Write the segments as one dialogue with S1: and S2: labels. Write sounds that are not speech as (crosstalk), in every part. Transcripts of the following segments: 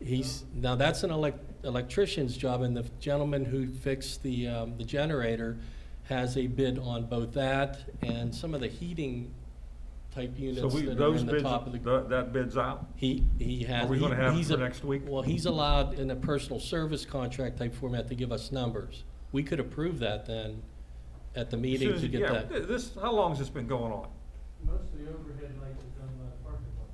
S1: He's, now that's an elec- electrician's job, and the gentleman who fixed the, um, the generator has a bid on both that and some of the heating type
S2: So
S1: units
S2: we,
S1: that are
S2: those
S1: in the
S2: bids,
S1: top of the.
S2: tha- that bid's out?
S1: He, he has.
S2: Are we gonna
S1: he-
S2: have it
S1: he's
S2: for
S1: a-
S2: next week?
S1: Well, he's allowed in a personal service contract type format to give us numbers. We could approve that then at the meeting to
S2: Susan,
S1: get
S2: yeah,
S1: that.
S2: th- This, how long's this been going on?
S3: Most of the overhead lights are done by the parking lot.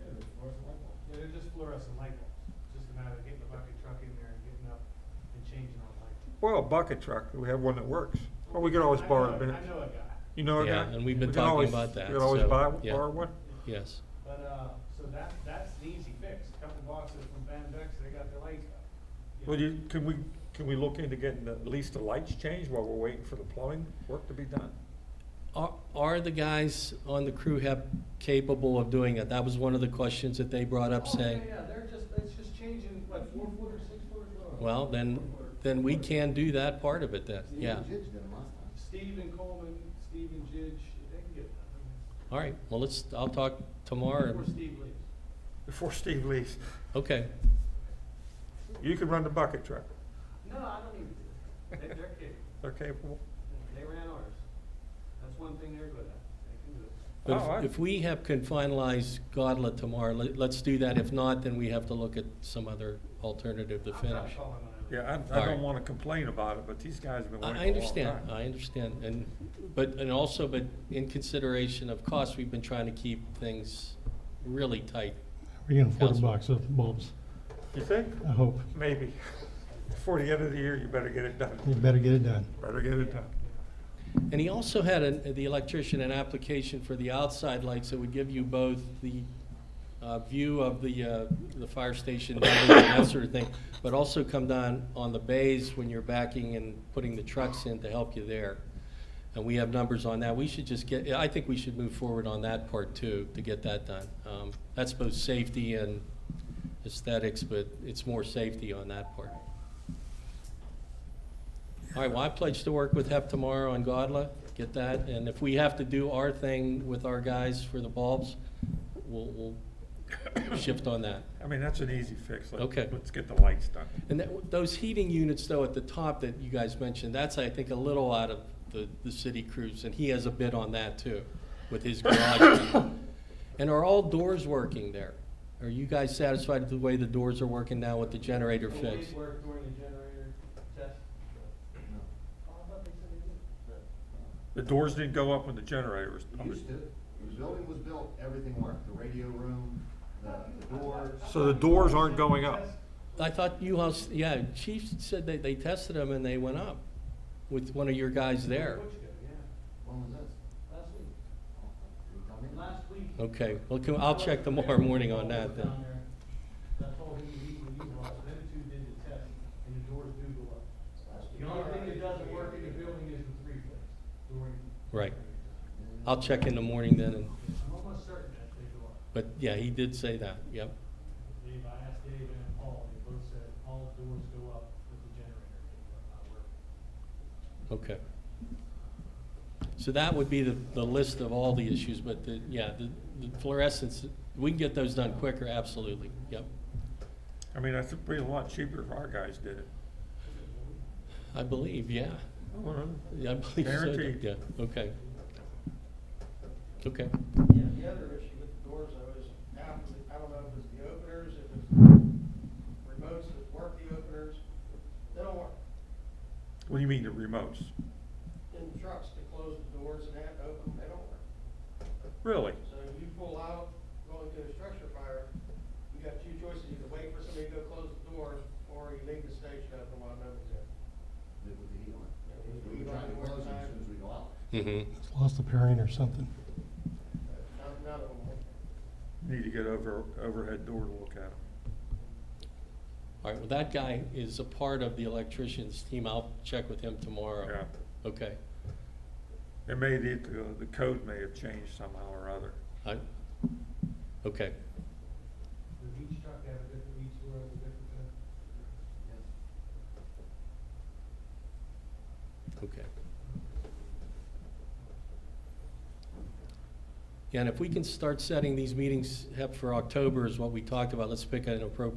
S3: Yeah, they're fluorescent light bulbs. Yeah, they're just fluorescent light bulbs. It's just a matter of getting the bucket truck in there and getting up and changing all the light.
S2: Well, a bucket truck, we have one that works. Or we could always
S3: I
S2: borrow
S3: know
S2: a bid.
S3: a- I know a guy,
S2: You know a guy?
S1: Yeah, and we've been
S2: We can
S1: talking
S2: always-
S1: about that,
S2: We can always
S1: so,
S2: buy,
S1: yeah.
S2: borrow one?
S1: Yes.
S3: but, uh, so that, that's the easy fix. Couple boxes from Van Vex, they got their lights up. know.
S2: Well, you, can we, can we look into getting at least the lights changed while we're waiting for the plumbing work to be done?
S1: Are, are the guys on the crew hep capable of doing it? That was one of the questions that they brought up
S3: Oh,
S1: saying.
S3: Yeah, yeah, they're just, it's just changing, what, four foot or six foot or?
S1: Well, then, then we can do that part of it then, yeah.
S3: Steve and Coleman, Steve and Jidge, they can get that.
S1: All right, well, let's, I'll talk tomorrow.
S3: Before Steve leaves.
S2: Before (laughs) Steve leaves,
S1: Okay,
S2: you can run the bucket truck.
S3: No, I don't even, they, they're kidding.
S2: They're capable.
S3: They ran ours. That's one thing they're good at. They can do it.
S1: but
S2: Oh, I-
S1: if- if we have, can finalize Godlet tomorrow, let, let's do that. If not, then we have to look at some other alternative to
S3: I'm not
S1: finish.
S3: calling on them.
S2: Yeah, I, I
S1: All right.
S2: don't wanna complain about it, but these guys have been
S1: I,
S2: waiting
S1: I
S2: a long time.
S1: understand, I understand, and, but, and also, but in consideration of cost, we've been trying to keep things really tight.
S4: We're gonna afford a
S1: Council.
S4: box of bulbs,
S2: You think?
S4: I hope.
S2: Maybe. (laughs) Before the end of the year, you better get it done.
S4: You better get it done.
S2: Better get it done.
S1: And he also had, an- the electrician, an application for the outside lights that would give you both the uh, view of the, uh, the fire station, (coughs) building and that sort of thing, but also come down on the bays when you're backing and putting the trucks in to help you there. And we have numbers on that. We should just get, I think we should move forward on that part too, to get that done. Um, That's both safety and aesthetics, but it's more safety on that part. All right, well, I pledge to work with HEP tomorrow on Godla, get that, and if we have to do our thing with our guys for the bulbs, we'll, we'll shift on that.
S2: I mean, that's an easy fix. Let-
S1: Okay.
S2: Let's get the lights done.
S1: And that, those heating units though at the top that you guys mentioned, that's, I think, a little out of the, the city crews, and he has a bid on that too, with his garage. And are all doors working there? Are you guys satisfied with the way the doors are working now with the generator
S3: Well, we
S1: fixed?
S3: worked during the generator test. Oh, I thought they said they did.
S2: The doors didn't go up when the generator was.
S5: It used to, when the building was built, everything worked, the radio room, the doors.
S2: So the doors aren't going up?
S1: I thought you house, yeah, Chief said they, they tested them and they went up with one of your guys there.
S3: Which go, yeah.
S5: When was this?
S3: Last week,
S5: Did you tell me?
S3: last week.
S1: Okay, well, can- I'll check tomorrow morning on that then.
S3: Down there, That whole heating heat we utilized, them two did the test, and the doors do go up.
S5: Last week.
S3: The only thing that doesn't work in the building is the three phase during.
S1: Right. I'll check in the morning then, and,
S3: I'm almost certain that they go up.
S1: but yeah, he did say that, yep.
S3: Dave, I asked Dave and Paul, they both said all the doors go up with the generator, not working.
S1: Okay. So that would be the, the list of all the issues, but the, yeah, the the fluorescence, we can get those done quicker, absolutely, yep.
S2: I mean, that's be a lot cheaper if our guys did it.
S1: I believe, yeah.
S2: I don't know.
S1: Yeah, I believe so.
S2: Guaranteed.
S1: Yeah, okay. Okay,
S6: Yeah, the other issue with the doors though is, I don't, I don't know if it's the openers, if it's remotes that work the openers, they don't work.
S2: What do you mean the remotes?
S6: In trucks to close the doors and that, open, they don't work.
S2: Really?
S6: So you pull out, going to a structure fire, you got two choices, either wait for somebody to go close the doors, or you leave the station open while nobody's there.
S5: With the heat on.
S6: Yeah,
S5: We
S6: we
S5: were trying to
S6: don't
S5: close it
S6: work
S5: as soon as we go out.
S1: mm-hmm.
S4: It's lost a pairing or something.
S6: None, none of them work.
S2: Need to get over, overhead door to look at them.
S1: All right, well, that guy is a part of the electrician's team. I'll check with him tomorrow. Yeah. Okay.
S2: Yeah. It may, the, the code may have changed somehow or other.
S1: I, okay,
S3: Does each truck have a different, each door has a different uh, code?
S1: okay. Yeah, and if we can start setting these meetings up for October is what we talked about, let's pick an appropriate